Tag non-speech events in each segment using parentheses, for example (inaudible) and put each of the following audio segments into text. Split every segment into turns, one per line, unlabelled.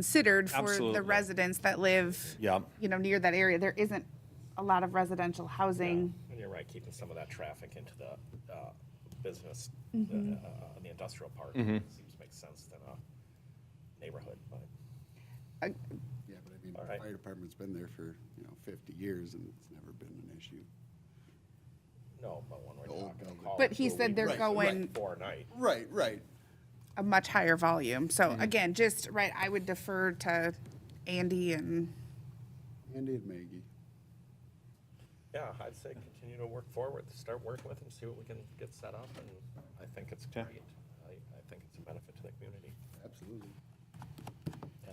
considered for
Absolutely.
the residents that live,
Yeah.
you know, near that area. There isn't a lot of residential housing.
And you're right, keeping some of that traffic into the uh, business, uh,
Mm-hmm.
uh, the industrial park,
Mm-hmm.
seems to make sense than a neighborhood, but.
Uh,
Yeah, but I mean,
All
the
right.
fire department's been there for, you know, fifty years and it's never been an issue.
No, but when we're
The old
talking a
building.
college.
But he
who
said
we
they're
rent
going-
For a night.
Right, right.
a much higher volume. So again, just right, I would defer to Andy and
Andy and Maggie.
Yeah, I'd say continue to work forward, start working with them, see what we can get set up, and I think it's great. I, I think it's a benefit to the community.
Absolutely.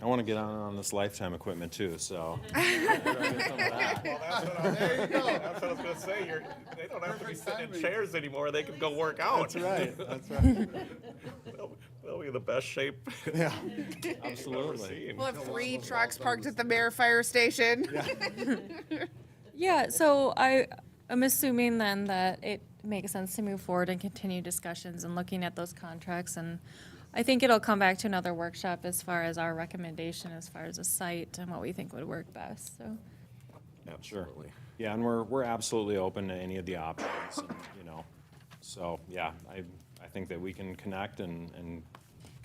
I want to get on, on this lifetime equipment too, so.
Well, that's what I was, that's what I was gonna say, you're, they don't have to be
Perfect
sitting in
timing.
chairs anymore, they can go work out. That's
Right, that's
(laughs)
right.
They'll they'll be in the best shape
Yeah.
I've ever
Absolutely.
seen.
we'll have three trucks parked at the mayor fire station.
Yeah, so I, I'm assuming then that it makes sense to move forward and continue discussions and looking at those contracts. And I think it'll come back to another workshop as far as our recommendation, as far as a site and what we think would work best, so.
Absolutely. Yeah, and we're, we're absolutely open to any of the options, and, you know. So, yeah, I, I think that we can connect and, and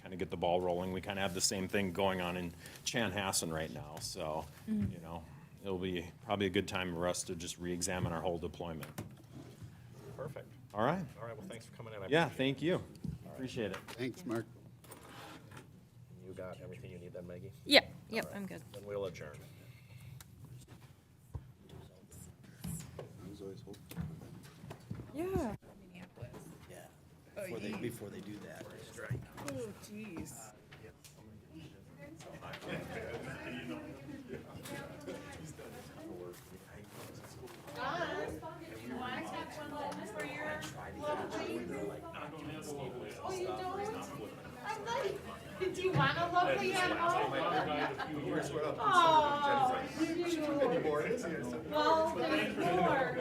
kind of get the ball rolling. We kind of have the same thing going on in Chanhassen right now, so, you know, it'll be probably a good time for us to just reexamine our whole deployment.
Perfect.
All right?
All right, well, thanks for coming in. I
Yeah,
appreciate
thank you. Appreciate it.
Thanks, Mark.
it. You got everything you need then, Maggie?
Yeah, yep, I'm good.
Then we'll adjourn.
I was always hopeful.
Yeah.
before they, before they do that.
(laughs) Oh, jeez.
Oh, you don't? I'm like, do you want a lovely animal? Oh, you do. Well, there's more.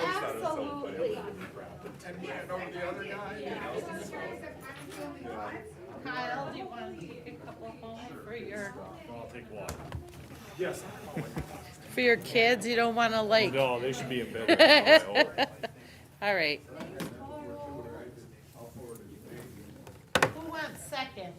Absolutely. Kyle, do you want to take a couple home for your?
For your kids, you don't want to like.
No, they should be in
(laughs)
bed. right now.
All right.
Who wants seconds?